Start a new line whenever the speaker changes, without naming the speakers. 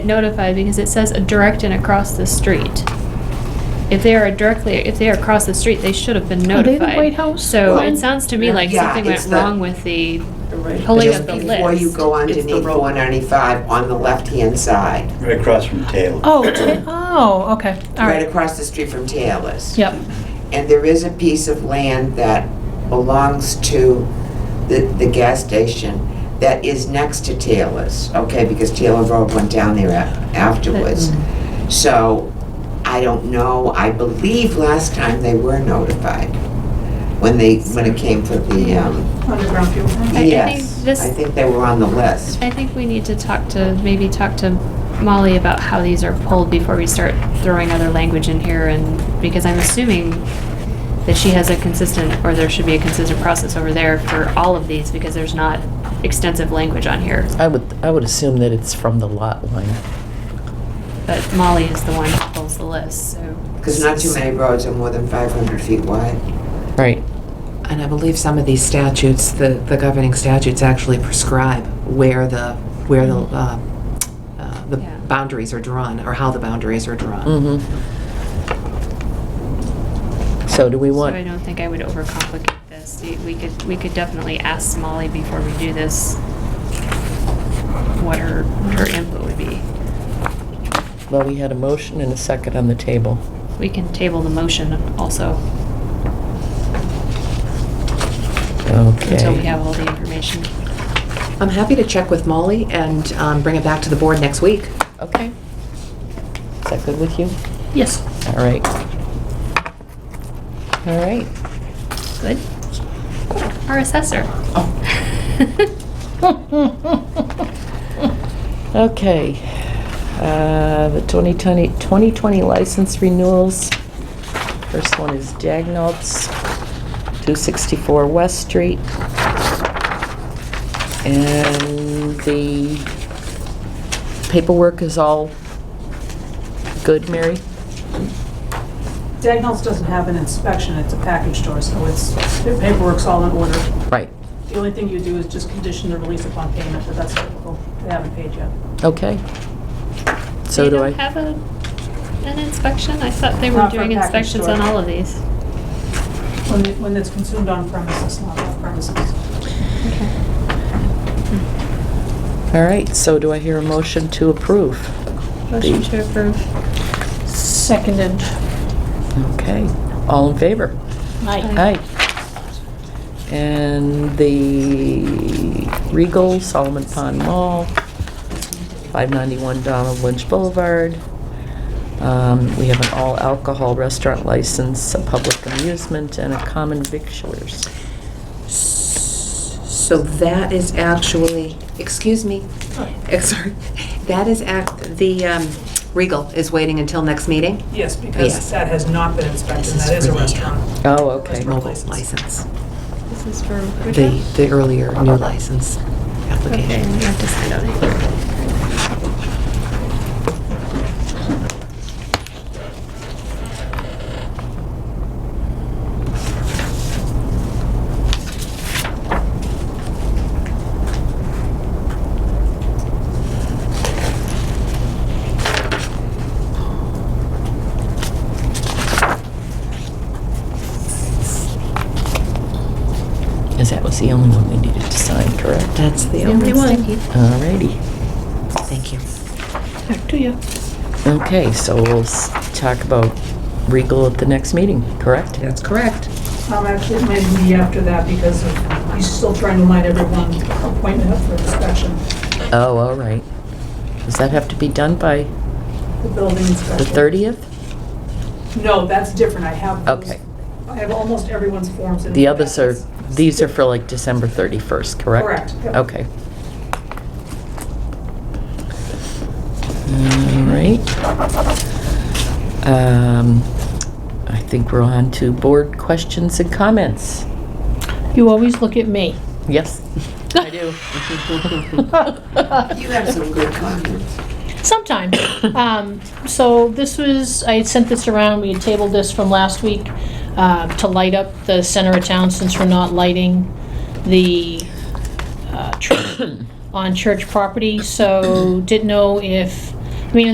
notified because it says a direct and across the street. If they are directly, if they are across the street, they should have been
Are they the
notified.
White House
So
one?
it sounds to me like
Yeah,
something went
it's the-
wrong with the
Right.
pulling
Just
of the
Before you
list.
go
It's the
underneath
road.
495 on the left-hand side,
Right across from Taylor.
Oh, ta- oh, okay, all
right
right.
across the street from Taylor's.
Yep,
And there is a piece of land that belongs to the, the gas station that is next to Taylor's, okay? Because Taylor Road went down there a- afterwards. So I don't know, I believe last time they were notified when they, when it came for the, um,
Underground fuel
I
tank?
think
yes.
this-
I think they were on the list.
I think we need to talk to, maybe talk to Molly about how these are pulled before we start throwing other language in here and, because I'm assuming that she has a consistent, or there should be a consistent process over there for all of these because there's not extensive language on here.
I would, I would assume that it's from the lot line.
But Molly is the one who pulls the list, so.
Because not too many roads are more than 500 feet wide.
Right.
And I believe some of these statutes, the, the governing statutes actually prescribe where the, where the,
Mm-hmm.
uh, uh, the
Yeah.
boundaries are drawn, or how the boundaries are drawn.
Mm-hmm. So do we
So I
want,
don't think I would overcomplicate this. We- We could, we could definitely ask Molly before we do this what her, her input would be.
well, we had a motion and a second on the table.
We can table the motion also until we
Okay.
have all the information.
I'm happy to check with Molly and um, bring it back to the board next week.
Okay. Is that good with you?
yes.
All right. All right.
Good? Our assessor.
Oh. Okay. Uh, The 2020 2020 license renewals. First one is Dagnalds, 264 West Street. And the paperwork is all good, Mary?
Dagnalls doesn't have an inspection, it's a package store, so it's, their paperwork's all in order.
Right.
The only thing you do is just condition the release upon payment, but that's typical, they haven't paid yet.
Okay. So do
They don't
I,
have a, an inspection? I thought they were
Not for
doing
package
inspections
store.
on all of these.
When, it- when it's consumed on premises, not off premises.
all right, so do I hear a motion to approve?
Motion to approve.
Seconded.
Okay. All in favor?
Aye.
Aye.
Aye. And the Regal Solomon Pond Mall, 591 Donald Lynch Boulevard. Um, We have an all-alcohol restaurant license, a public amusement, and a common victualers.
So that is actually, excuse me, eh, sorry, that is act, the um, Regal is waiting until next meeting.
Yes, because
Yes.
that has not been inspected,
This
that
is
is a
really-
restaurant.
Oh, okay.
Mobile
Mobile license,
This is for which
the,
one?
the earlier new license
Okay,
application.
we have to sign on it.
Because that was the only one we needed to sign, correct?
That's the only one.
All righty.
Thank you.
Back to you.
Okay, so we'll s- talk about Regal at the next meeting, correct?
That's correct.
Um, actually, it might be after that because of- he's still trying to line everyone appointment up for inspection,
Oh, all right. Does that have to be done by
the building
the
inspection.
30th?
No, that's different, I have those-
Okay.
I have almost everyone's forms in.
The others are,
packets.
these are for like December 31st, correct?
Correct, yep.
Okay. All right. Um, I think we're on to board questions and comments.
You always look at me.
Yes? I do.
You have some good comments.
Sometime. Um, So this was, I had sent this around, we had tabled this from last week, uh, to light up the center of town since we're not lighting the uh, tree on church property. So didn't know if